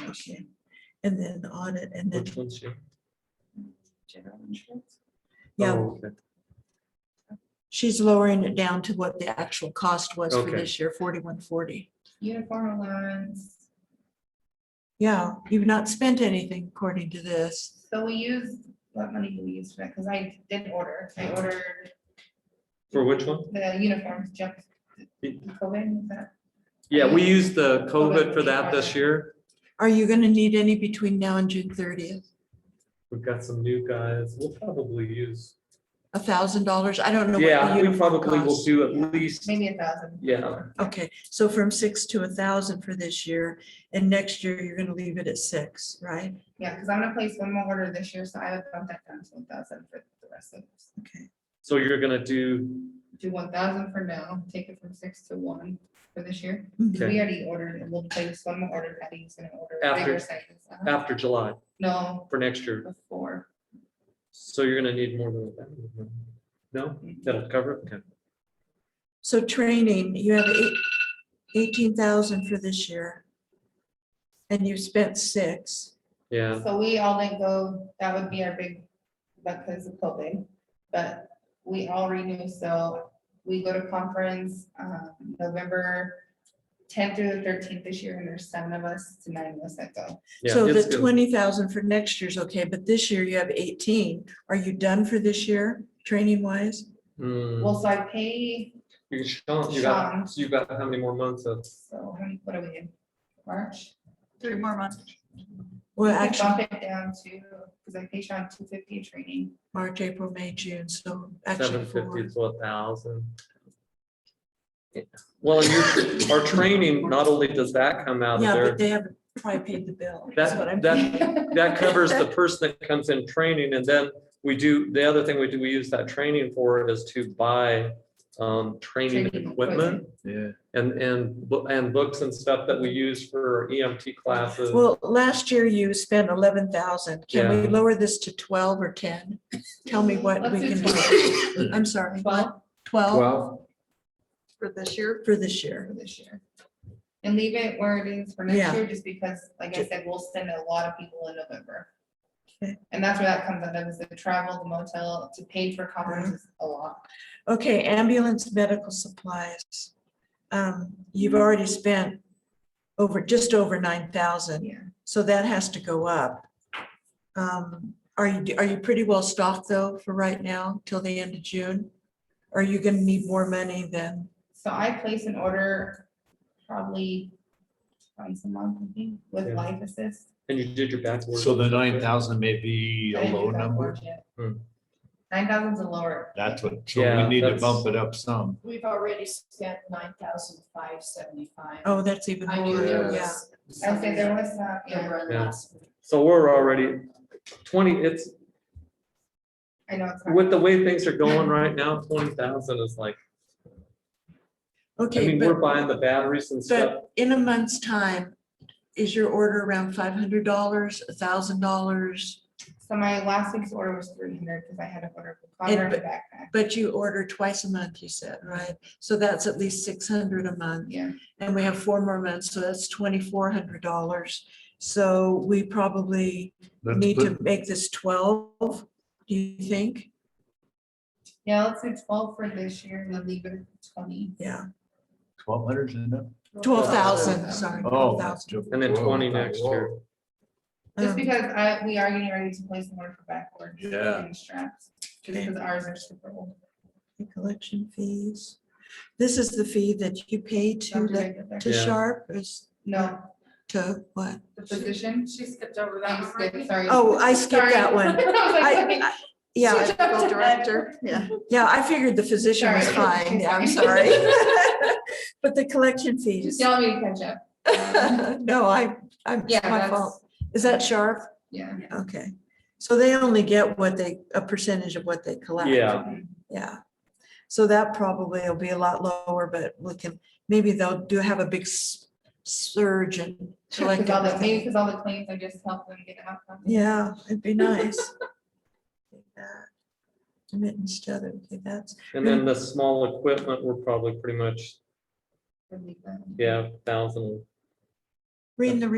last year. And then audit and then, Which one's here? General insurance. yeah, Oh, okay. she's lowering it down to what the actual cost was for Okay. this year, forty-one forty. Uniform allowance, Yeah, you've not spent anything according to this. so we use, what money do we use for that? Cause I did order, I ordered For which one? the uniforms jump. COVID, is that? Yeah, we used the COVID for that this year. Are you gonna need any between now and June thirtieth? We've got some new guys. We'll probably use. A thousand dollars? I don't know. what the Yeah, we uniform probably will costs. do at least, maybe a thousand. yeah. Okay, so from six to a thousand for this year, and next year you're gonna leave it at six, right? Yeah, cause I'm gonna place one more order this year, so I would bump that down to one thousand for the rest of, Okay, So you're gonna do, do one thousand for now, take it from six to one for this year. Mm-hmm. 'Cause Okay. We already ordered, and we'll place one more order, Patty's gonna order. a After- bigger sizes. Uh-huh. after July No, for next year. before. So you're gonna need more than that. No, that'll cover it. Okay. so training, you have eight, eighteen thousand for this year. And you spent six, Yeah, So we all didn't go, that would be our big, because of COVID, but we all renew, so we go to conference, um, November tenth through the thirteenth this year, and there's seven of us to nine of us that go. yeah. so it's the good. twenty thousand for next year's okay, but this year you have eighteen. Are you done for this year, training wise? Hmm. Well, so I pay, You Sean, you got, Sean. so you got how many more months of, so how many- what are we in, March? Three more months. Well, We could actually, Bump it down to, because I pay Sean two fifty training, March, April, May, June, so actually seven fifty four. to a thousand? Well, and your, our training, not only does that come out of Yeah, there, but they haven't probably paid the bill. is what I'm- that, that, that covers the person that comes in training, and then we do, the other thing we do, we use that training for is to buy um, training Training equipment Yeah. and, and, bo- and books and stuff that we use for EMT classes. Well, last year you spent eleven thousand. Can we lower this to twelve or ten? Tell me what Let's we can do do. I'm sorry, twelve twelve Twelve, For this year? for this for year. this year. And leave it where it is for Yeah. next year, just because, like I said, we'll send a lot of people in November. Okay. And that's where that comes out of, is the travel, the motel, to pay for conferences, a lot. Okay, ambulance medical supplies. Um, you've already spent over, just over nine thousand, Yeah. so that has to go up. Um, are you, are you pretty well stocked though for right now till the end of June? Are you gonna need more money then? So I place an order probably once a month, I think, with Yeah. life assist. And you did your backboard. so the nine thousand may be I a didn't do low that number, board yet. Hmm. Nine thousand's a lower. that's what, so Yeah, we need to that's- bump it up some. We've already spent nine thousand five seventy-five. Oh, that's even I knew more, there yeah. was. I say there was, uh, Yeah, yeah, run Yeah. last week. So we're already twenty, it's, I know it's. hard. with the way things are going right now, twenty thousand is like, I Okay, mean, but we're buying the batteries and stuff. But in a month's time, is your order around five hundred dollars, a thousand dollars? So my last week's order was three hundred, because I had to order a And- converter and a backpack, But you order twice a month, you said, right? So that's at least six hundred a month, yeah. and we have four more months, so that's twenty-four hundred dollars. So we probably Let's need put- to make this twelve, do you think? Yeah, let's do twelve for this year, and then leave it at twenty. Yeah, Twelve hundred is enough? Oh, twelve thousand, sorry, Oh. twelve thousand. And then whoa, 20 next whoa. year. Just because I, we are getting ready to place an order for backboard. Yeah. And straps, just because ours are super old. The Um, Collection fees. This is the fee that you pay to, Dr. the- Jacob there. to Yeah. Sharp, is No, to what? the position, She skipped over that thanks, one. good, right? sorry. Oh, I skipped that Sorry. one. I was like, I- okay. I- Yeah, Medical Director, yeah. yeah, I figured the physician was Sorry. fine, yeah, I'm sorry. Sorry. But the collection fees, Just tell me to catch up. no, I, I'm, Yeah, it's my fault. that's, Is that sharp? yeah. Okay, so they only get what they, a percentage of what they collect. Yeah. Yeah, so that probably will be a lot lower, but we can, maybe they'll do have a big s- surge and collect Because all the, maybe everything. because all the claims, I just helped them get out. Yeah, it'd be nice. Yeah. Remittance to other, okay, that's, And then the small equipment, we're probably pretty much, Relieve them. yeah, thousand. reading the